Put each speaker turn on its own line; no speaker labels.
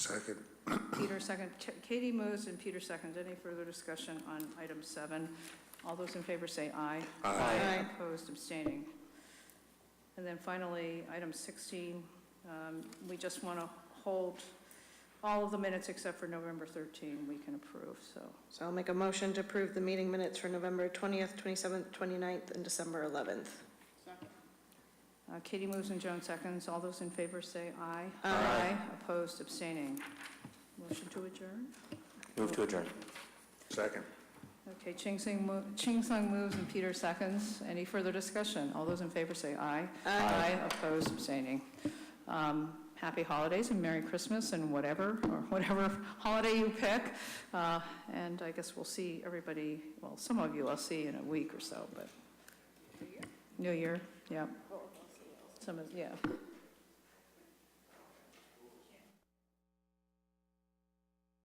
Second.
Peter second, Katie moves and Peter seconds. Any further discussion on item seven? All those in favor say aye. Aye. Opposed, abstaining. And then finally, item 16, um, we just want to hold all of the minutes except for November 13, we can approve, so.
So I'll make a motion to approve the meeting minutes for November 20th, 27th, 29th, and December 11th.
Uh, Katie moves and Joan seconds. All those in favor say aye. Aye. Opposed, abstaining. Motion to adjourn?
Move to adjourn.
Second.
Okay, Ching Sing, mo- Ching Sung moves and Peter seconds. Any further discussion? All those in favor say aye. Aye. Opposed, abstaining. Um, Happy holidays and Merry Christmas and whatever, or whatever holiday you pick. Uh, And I guess we'll see everybody, well, some of you I'll see in a week or so, but. New Year, yeah. Some of, yeah.